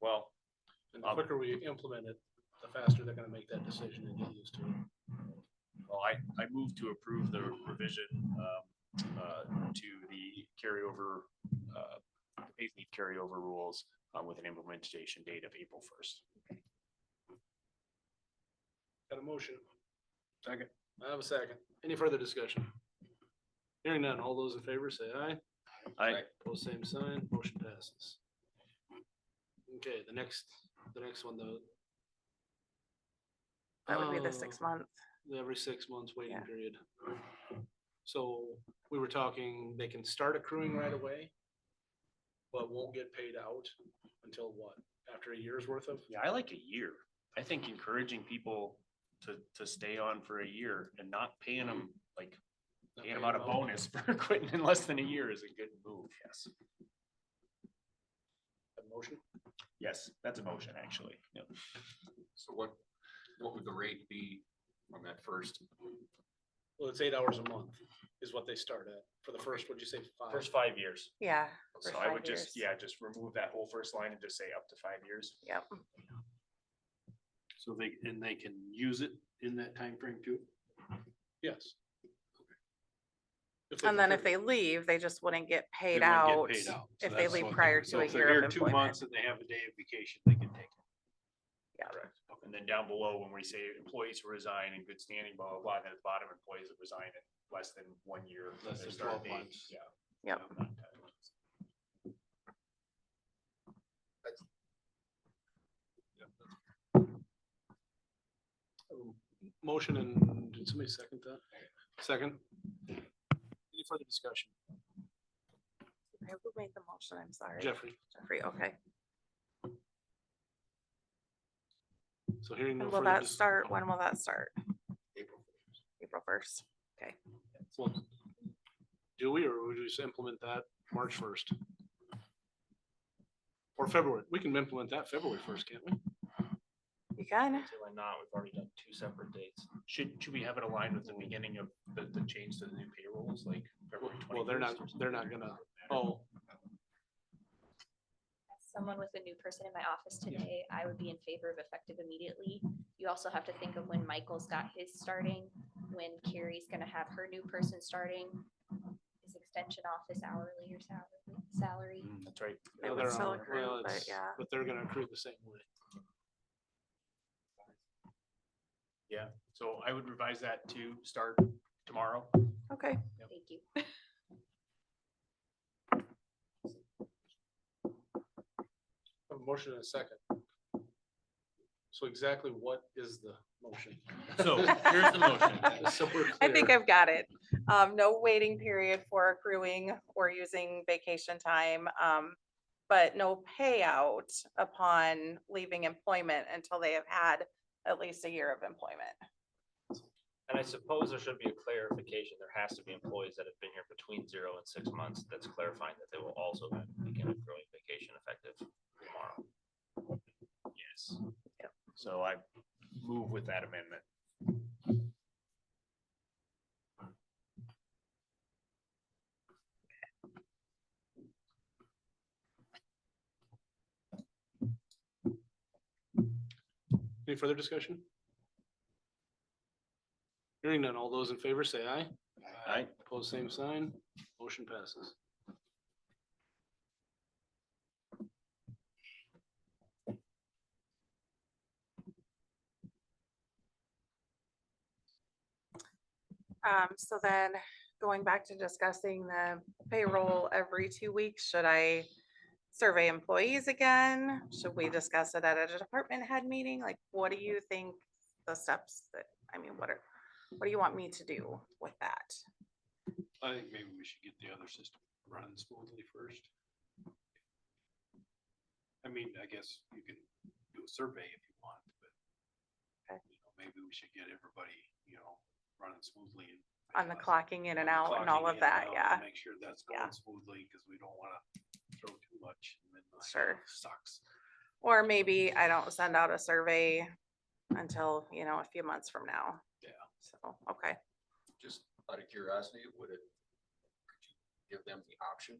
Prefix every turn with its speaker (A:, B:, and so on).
A: well,
B: And the quicker we implement it, the faster they're gonna make that decision and get used to it.
A: well, I, I move to approve the revision, um, uh, to the carryover, uh, paid leave carryover rules, uh, with an implementation date of April first.
B: Got a motion?
A: Second.
B: I have a second. Any further discussion? Hearing none, all those in favor say aye.
A: I,
B: Pose same sign, motion passes. Okay, the next, the next one though.
C: That would be
B: Oh,
C: the six month.
B: the Every six months waiting
C: Yeah.
B: period. So we were talking, they can start accruing right away, but won't get paid out until what? After a year's worth of?
A: yeah, I like a year. I think encouraging people to, to stay on for a year and not paying them, like,
B: not
A: paying them
B: paying
A: out a bonus for quitting in less than a year is a good move. Yes.
B: A Motion?
A: Yes, that's a motion, actually. Yep.
D: So what, what would the rate be on that first?
B: Well, it's eight hours a month is what they start at. For the first, what'd you say? Five?
A: First five years.
C: Yeah. for
A: So I
C: five
A: would just,
C: years.
A: yeah, just remove that whole first line and just say up to five years.
C: Yep.
E: So they, and they can use it in that time frame too?
B: Yes. If they
C: And then if
B: contribute.
C: they leave, they just wouldn't get
E: wouldn't
C: paid
E: get
C: out.
E: paid out. So
C: if they
E: that's
C: leave
E: what-
C: prior
E: so
C: to a
E: if they're
C: year of
E: here Two
C: employment.
E: months and they have a day of vacation, they can take it.
A: And then down below, when we say employees who resign in good standing, blah, blah, blah, then at the bottom, employees that resign in less than one year. of
E: Less
A: their
E: than
A: start
E: 12
A: date.
E: months.
A: Yeah.
C: Yep.
A: Yeah, not 10 months.
B: Um, Motion and did somebody second that? Second? Any further discussion?
C: I will make the motion, I'm sorry.
B: Jeffrey,
C: Jeffrey, okay.
B: so hearing no
C: And will
B: further.
C: that
B: dis-
C: start, when will that start? April first.
B: well, Do we, or would we just implement that March first? Or February? We can implement that February first, can't we?
C: You can,
A: Why not? We've already done two separate dates. Should, should we have it aligned with the beginning of the, the change to the new payrolls, like February twenty?
B: Well, they're not, they're not gonna, oh,
F: as someone was a new person in my office today, I would be in favor of effective immediately. You also have to think of when Michael's got his starting, when Carrie's gonna have her new person starting. His extension office hourly or salary, salary.
A: That's right.
C: It
B: no,
C: would
B: they're
C: still
B: on-
C: accrue,
B: well,
C: but
B: it's-
C: yeah.
B: but they're gonna accrue the same way.
A: So I would revise that to start tomorrow.
C: okay.
F: Thank you.
B: A motion and a second. So exactly what is the motion?
D: So here's the motion.
B: Just so we're
C: I think
B: clear.
C: I've got it. Um, no waiting period for accruing or using vacation time. Um, but no payout upon leaving employment until they have had at least a year of employment.
G: And I suppose there should be a clarification. There has to be employees that have been here between zero and six months. That's clarifying that they will also begin accruing vacation effective tomorrow.
A: Yes. So I move with that amendment.
B: Any further discussion? Hearing none, all those in favor say aye.
A: Aye.
B: Opposed, same sign. Motion passes.
C: Um, so then going back to discussing the payroll every two weeks, should I survey employees again? Should we discuss it at a department head meeting? Like, what do you think the steps that, I mean, what are, what do you want me to do with that?
E: I think maybe we should get the other system running smoothly first. I mean, I guess you can do a survey if you want, but
C: Okay.
E: you know, maybe we should get everybody, you know, running smoothly. and-
C: On the clocking in and out and
E: clocking
C: all
E: in
C: of
E: and
C: that,
E: out to
C: yeah.
E: Make sure that's
C: Yeah.
E: going smoothly because we don't want to throw too much. and then like,
C: Sure.
E: Sucks.
C: Or maybe I don't send out a survey until, you know, a few months from now.
E: Yeah.
C: So, okay.
D: Just out of curiosity, would it, could you give them the option